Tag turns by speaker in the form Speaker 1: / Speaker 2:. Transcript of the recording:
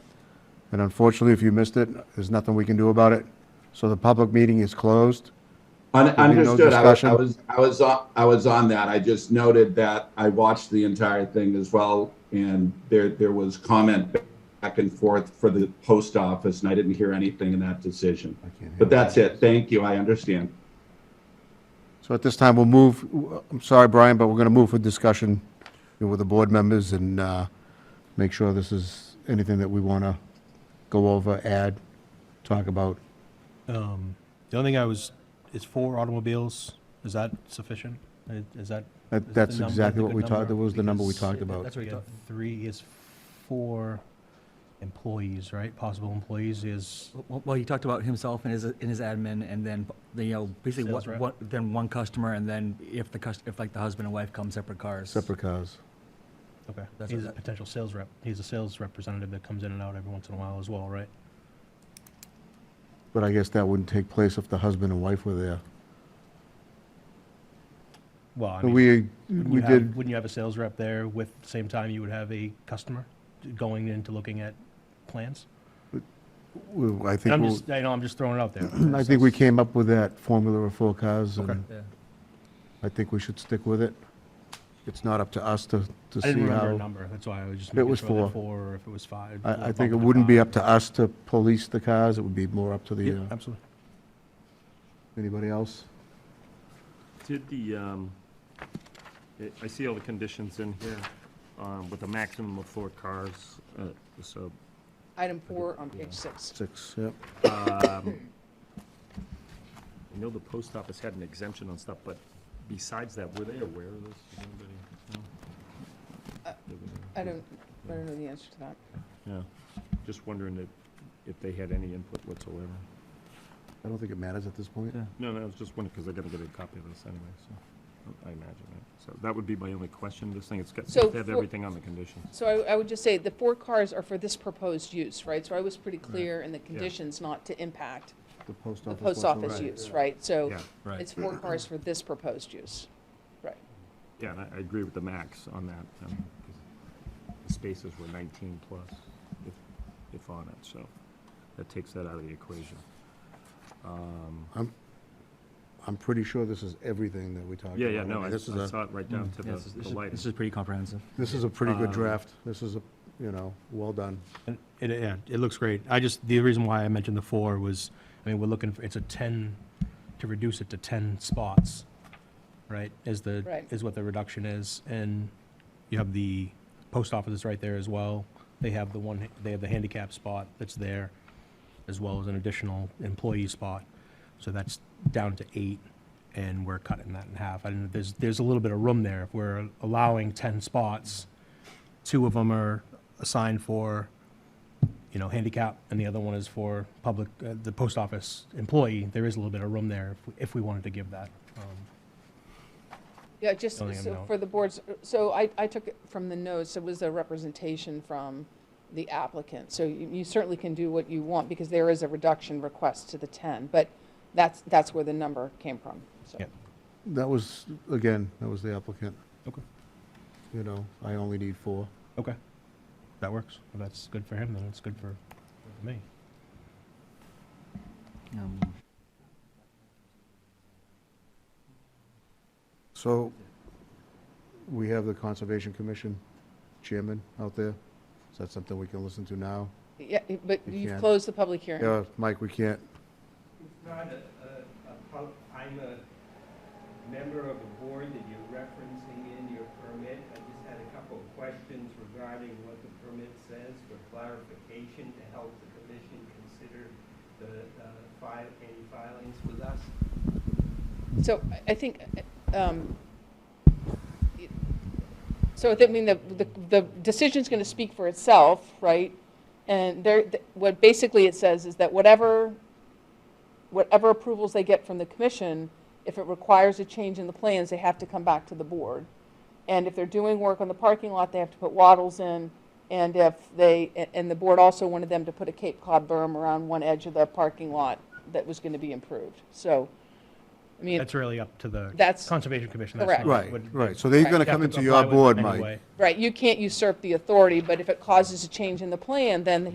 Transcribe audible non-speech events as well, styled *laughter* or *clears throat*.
Speaker 1: And unfortunately, if you missed it, there's nothing we can do about it. So the public meeting is closed.
Speaker 2: Un-
Speaker 1: no
Speaker 2: Understood. I was, I
Speaker 1: discussion?
Speaker 2: was, I was, on- I was on that. I just noted that I watched the entire thing as well. And there, there was comment back and forth for the post office and I didn't hear anything in that decision.
Speaker 1: I can't hear
Speaker 2: But that's it. Thank you. I understand.
Speaker 1: So at this time, we'll move, I'm sorry, Brian, but we're going to move for discussion you know, with the board members and uh, make sure this is anything that we want to go over, add, talk about.
Speaker 3: Um, the only thing I was, is four automobiles, is that sufficient? Is is that?
Speaker 1: That-
Speaker 3: is the
Speaker 1: That's
Speaker 3: number
Speaker 1: exactly
Speaker 3: the
Speaker 1: what
Speaker 3: good
Speaker 1: we talked,
Speaker 3: number?
Speaker 1: that was the number we
Speaker 3: Because
Speaker 1: talked about.
Speaker 3: That's what we got, three is four employees, right? Possible employees is,
Speaker 4: Well, well, he talked about himself and his, and his admin, and then, you know, basically,
Speaker 3: Sales
Speaker 4: what,
Speaker 3: rep.
Speaker 4: what, then one customer, and then if the cus, if like the husband and wife come separate cars.
Speaker 1: Separate cars.
Speaker 3: okay,
Speaker 4: That's
Speaker 3: he's
Speaker 4: what
Speaker 3: a
Speaker 4: that-
Speaker 3: potential sales rep. He's a sales representative that comes in and out every once in a while as well, right?
Speaker 1: But I guess that wouldn't take place if the husband and wife were there.
Speaker 3: Well, I mean,
Speaker 1: We,
Speaker 3: wouldn't
Speaker 1: we
Speaker 3: you have,
Speaker 1: did,
Speaker 3: wouldn't you have a sales rep there with, same time you would have a customer going into looking at plans?
Speaker 1: we- I
Speaker 3: And
Speaker 1: think,
Speaker 3: I'm
Speaker 1: we'll-
Speaker 3: just, I know, I'm just throwing it out there.
Speaker 1: *clears throat* I think we came up with that formula of four cars, and
Speaker 4: Yeah.
Speaker 1: I think we should stick with it. It's not up to us to, to
Speaker 3: I didn't
Speaker 1: see
Speaker 3: remember a
Speaker 1: how.
Speaker 3: number, that's why I was just
Speaker 1: It
Speaker 3: making
Speaker 1: was
Speaker 3: sure that
Speaker 1: four.
Speaker 3: four, or if it was five.
Speaker 1: I, I
Speaker 3: like
Speaker 1: think it
Speaker 3: bump
Speaker 1: wouldn't be
Speaker 3: five.
Speaker 1: up to us to police the cars, it would be more up to
Speaker 3: Yeah,
Speaker 1: the, uh,
Speaker 3: absolutely.
Speaker 1: anybody else?
Speaker 5: Did the, um, I- I see all the conditions in here, um, with a maximum of four cars, uh, so,
Speaker 6: Item four on page six.
Speaker 1: Six, yep.
Speaker 5: um, I know the post office had an exemption on stuff, but besides that, were they aware of this? Does anybody know?
Speaker 6: Uh,
Speaker 5: They were-
Speaker 6: I don't, I don't know the answer to that.
Speaker 5: Yeah, just wondering if, if they had any input whatsoever.
Speaker 1: I don't think it matters at this point.
Speaker 5: No, no, I was just wondering, because I gotta get a copy of this anyway, so, I imagine, right? So that would be my only question, this thing, it's got,
Speaker 6: So
Speaker 5: they have
Speaker 6: for-
Speaker 5: everything on the conditions.
Speaker 6: So I, I would just say the four cars are for this proposed use, right? So I was pretty clear in the conditions not to impact
Speaker 1: The post
Speaker 6: the
Speaker 1: office.
Speaker 6: post
Speaker 1: wasn't
Speaker 6: office
Speaker 1: right.
Speaker 6: use, right? So
Speaker 5: Yeah,
Speaker 4: Right.
Speaker 6: it's four cars for this proposed use. Right.
Speaker 5: yeah, and I, I agree with the max on that, um, 'cause the spaces were nineteen plus, if, if on it, so that takes that out of the equation. Um,
Speaker 1: I'm pretty sure this is everything that we talked about.
Speaker 5: yeah, yeah, no,
Speaker 1: mean,
Speaker 5: I I
Speaker 1: This is a,
Speaker 5: saw it right down to
Speaker 4: Yeah, Mm,
Speaker 5: the
Speaker 4: This is- this
Speaker 5: the
Speaker 4: is-
Speaker 5: lighting.
Speaker 4: this is pretty comprehensive.
Speaker 1: this is a pretty good
Speaker 5: Um,
Speaker 1: draft, this is a, you know, well done.
Speaker 3: And It, yeah, it looks great. I just, the reason why I mentioned the four was, I mean, we're looking, for it's a ten, to reduce it to ten spots, right, is the,
Speaker 6: Right.
Speaker 3: is what the reduction is, and you have the post office is right there as well. They have the one, they have the handicap spot that's there, as well as an additional employee spot. So that's down to eight, and we're cutting that in half. I don't, there's, there's a little bit of room there. If we're allowing ten spots, two of them are assigned for, you know, handicap, and the other one is for public, uh, the post office employee. There is a little bit of room there if, we- if we wanted to give that. Um,
Speaker 6: Yeah, just
Speaker 3: Don't even
Speaker 6: so
Speaker 3: know.
Speaker 6: for the boards, so I, I took it from the notes, it was a representation from the applicant. So you you certainly can do what you want because there is a reduction request to the 10, but that's, that's where the number came from, so.
Speaker 3: Yeah.
Speaker 1: That was, again, that was the applicant.
Speaker 3: Okay.
Speaker 1: You know, I only need four.
Speaker 3: Okay. That works. If that's good for him, then it's good for for me.
Speaker 4: Um,
Speaker 1: So we have the Conservation Commission chairman out there. Is that something we can listen to now?
Speaker 6: Yeah, but
Speaker 1: You
Speaker 6: you've
Speaker 1: can.
Speaker 6: closed the public hearing.
Speaker 1: Yeah, Mike, we can't.
Speaker 7: It's not a, a, a pub, I'm a member of a board that you're referencing in your permit. I just had a couple of questions regarding what the permit says for clarification to help the commission consider the, uh, file, any filings with us.
Speaker 6: So I- I think, um, it- so I mean, the, the, the decision's going to speak for itself, right? And there, th- what basically it says is that whatever, whatever approvals they get from the commission, if it requires a change in the plans, they have to come back to the board. And if they're doing work on the parking lot, they have to put wattles in. And if they, a- and the board also wanted them to put a Cape Cod berm around one edge of the parking lot that was going to be improved. So, I mean,
Speaker 3: That's really up to the
Speaker 6: That's-
Speaker 3: Conservation Commission.
Speaker 6: Correct.
Speaker 1: Right, right. So they're going to come into your board, Mike.
Speaker 6: Right, you can't usurp the authority, but if it causes a change in the plan, then